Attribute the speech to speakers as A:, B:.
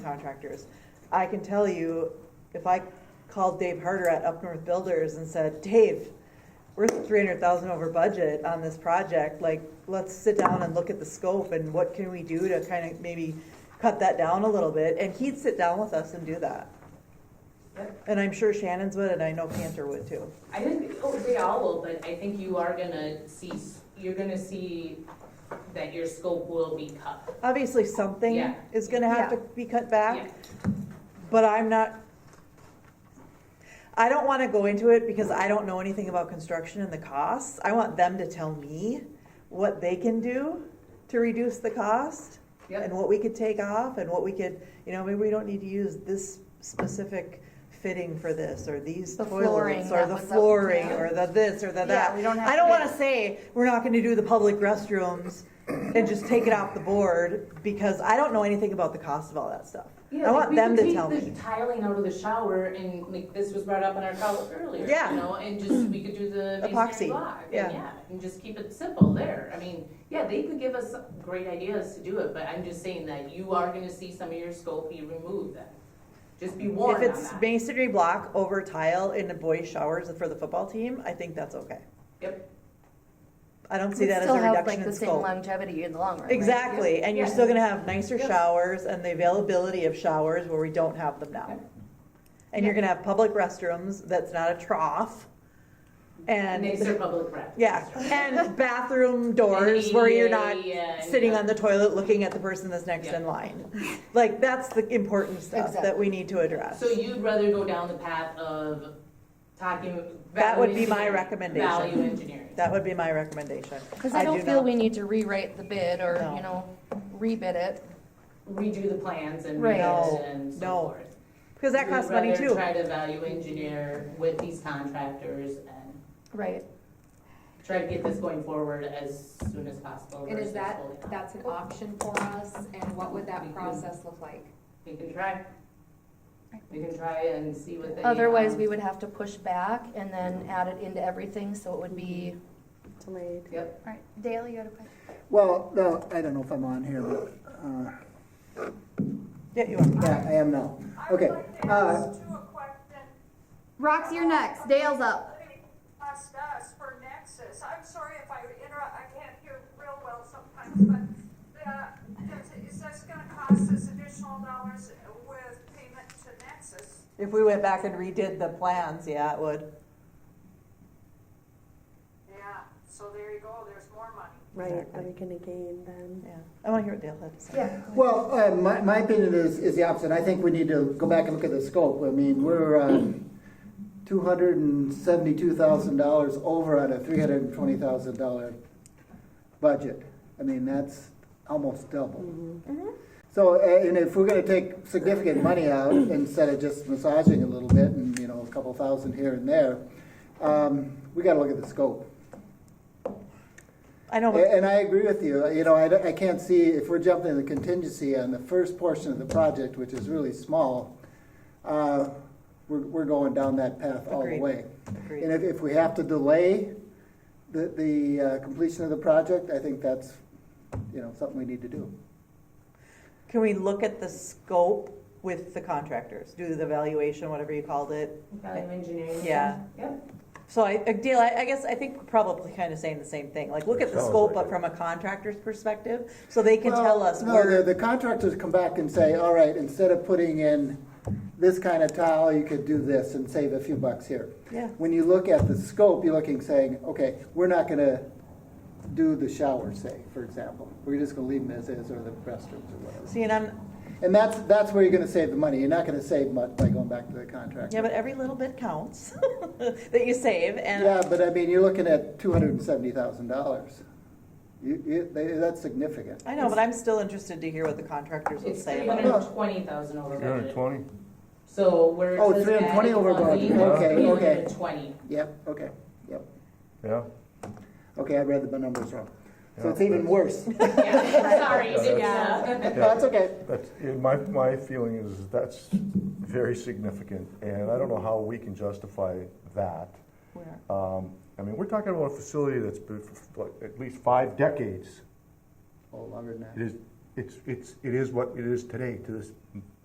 A: contractors. I can tell you, if I called Dave Harder at Up North Builders and said, Dave, we're three hundred thousand over budget on this project, like, let's sit down and look at the scope and what can we do to kind of maybe cut that down a little bit, and he'd sit down with us and do that. And I'm sure Shannon's would, and I know Cantor would too.
B: I think, oh, they all will, but I think you are gonna see, you're gonna see that your scope will be cut.
A: Obviously, something
B: Yeah.
A: is gonna have to be cut back,
B: Yeah.
A: But I'm not, I don't wanna go into it because I don't know anything about construction and the costs. I want them to tell me what they can do to reduce the cost and
B: Yep.
A: what we could take off and what we could, you know, maybe we don't need to use this specific fitting for this or these
C: The flooring,
A: toilets or
C: that
A: the
C: was up-
A: flooring
C: yeah.
A: or the this or the
C: Yeah,
A: that.
C: we don't have.
A: I don't
C: to-
A: wanna say, we're not gonna do the public restrooms and just take it off the board because I don't know anything about the cost of all that stuff.
B: Yeah,
A: I
B: like,
A: want
B: we
A: them
B: could
A: to
B: take
A: tell
B: the
A: me.
B: Tiling out of the shower and like this was brought up on our call earlier,
A: Yeah.
B: you know, and just, we could do the
A: Epoxy,
B: masonry block. and
A: yeah.
B: Yeah, and just keep it simple there. I mean, yeah, they could give us great ideas to do it, but I'm just saying that you are gonna see some of your scope be removed then. Just be
A: If
B: warned on
A: it's
B: that.
A: masonry block over tile in the boys' showers for the football team, I think that's okay.
B: Yep.
A: I don't see
C: We'd
A: that as a
C: still have like
A: reduction in
C: the same
A: scope.
C: longevity in the long run, right?
A: Exactly, and you're
B: Yeah.
A: still gonna have nicer
B: Yeah.
A: showers and the availability of showers where we don't have them now. And you're
B: Yeah.
A: gonna have public restrooms that's not a trough.
B: And they
A: And,
B: serve public breath.
A: yeah, and bathroom doors where you're not sitting on the toilet looking at the person that's next
B: Yeah.
A: in line. Like, that's the important stuff that we need to address.
B: So you'd rather go down the path of talking.
A: That would be my
B: value engineering-
A: recommendation.
B: Value engineering.
A: That would be my recommendation.
C: Because I
A: I
C: don't
A: do
C: feel
A: not-
C: we need to rewrite the bid or,
A: No.
C: you know, rebid it.
B: Redo the plans and
C: Right.
B: redo it and
A: No,
B: so forth.
A: Because that costs money
B: You'd
A: too.
B: rather try to value engineer with these contractors and
C: Right.
B: try to get this going forward as soon as possible.
D: And is
B: versus
D: that,
B: holding off.
D: that's an option for us, and what would that process look like?
B: We can try. We can try and see what they.
C: Otherwise,
B: um,
C: we would have to push back and then add it into everything, so it would be.
E: Delayed.
B: Yep,
C: All right, Dale, you had a question?
F: Well, no, I don't know if I'm on here, but, uh,
A: Yeah, you are.
F: yeah, I am now. Okay,
G: I would like to
F: uh,
G: ask you a question.
H: Roxy, you're next. Dale's up.
G: Asked us for Nexus. I'm sorry if I interrupt, I can't hear real well sometimes, but uh, does- is this gonna cost us additional dollars with payment to Nexus?
A: If we went back and redid the plans, yeah, it would.
G: Yeah, so there you go, there's more money.
E: Right, that we can again then.
A: Yeah. I want to hear what Dale had to say. Yeah.
F: well, uh, my, my opinion is, is the opposite. I think we need to go back and look at the scope. I mean, we're, uh, two hundred and seventy-two thousand dollars over on a three hundred and twenty thousand dollar budget. I mean, that's almost double. So, uh, and if we're gonna take significant money out instead of just massaging a little bit and, you know, a couple thousand here and there, um, we gotta look at the scope.
A: I know, but
F: A- And I agree with you, you know, I, don't- I can't see, if we're jumping the contingency on the first portion of the project, which is really small, uh, we're, we're going down that path all the
A: Agreed.
F: way.
A: Agreed.
F: And if, if we have to delay the, the uh, completion of the project, I think that's, you know, something we need to do.
A: can we look at the scope with the contractors? Do the valuation, whatever you called it?
B: value engineering.
A: Yeah.
B: Yep,
A: So I, uh, Dale, I I guess, I think we're probably kind of saying the same thing. Like, look at the
I: Sounds
A: scope, but
I: like it.
A: from a contractor's perspective, so they can tell us
F: No, the,
A: where,
F: the contractors come back and say, all right, instead of putting in this kind of tile, you could do this and save a few bucks here.
A: yeah.
F: When you look at the scope, you're looking, saying, okay, we're not gonna do the shower, say, for example. We're just gonna leave them as is, or the restrooms, or whatever.
A: See, and I'm,
F: And that's, that's where you're gonna save the money. You're not gonna save much by going back to the contract.
A: yeah, but every little bit counts that you save,
F: Yeah,
A: and
F: but I mean, you're looking at two hundred and seventy thousand dollars. You, you, they- that's significant.
A: I know, but I'm still interested to hear what the contractors would
B: it's
A: say
B: three
A: about it.
B: hundred and twenty thousand over
I: Three hundred
B: budget.
I: twenty?
B: So we're.
F: Oh, 320 over budget.
I: Okay,
B: Three hundred
F: okay.
B: and twenty.
F: Yep, okay, yep.
I: Yeah.
F: Okay, I read the numbers wrong. So
I: Yeah,
F: it's even
I: that's-
F: worse.
B: Yeah, sorry,
I: Yeah,
B: didn't
C: that's-
B: know.
F: That's okay.
I: That's, yeah, my, my feeling is that's very significant, and I don't know how we can justify that.
A: Where?
I: Um, I mean, we're talking about a facility that's been for like at least five decades.
F: Oh, longer than that.
I: It is, it's, it's, it is what it is today to this,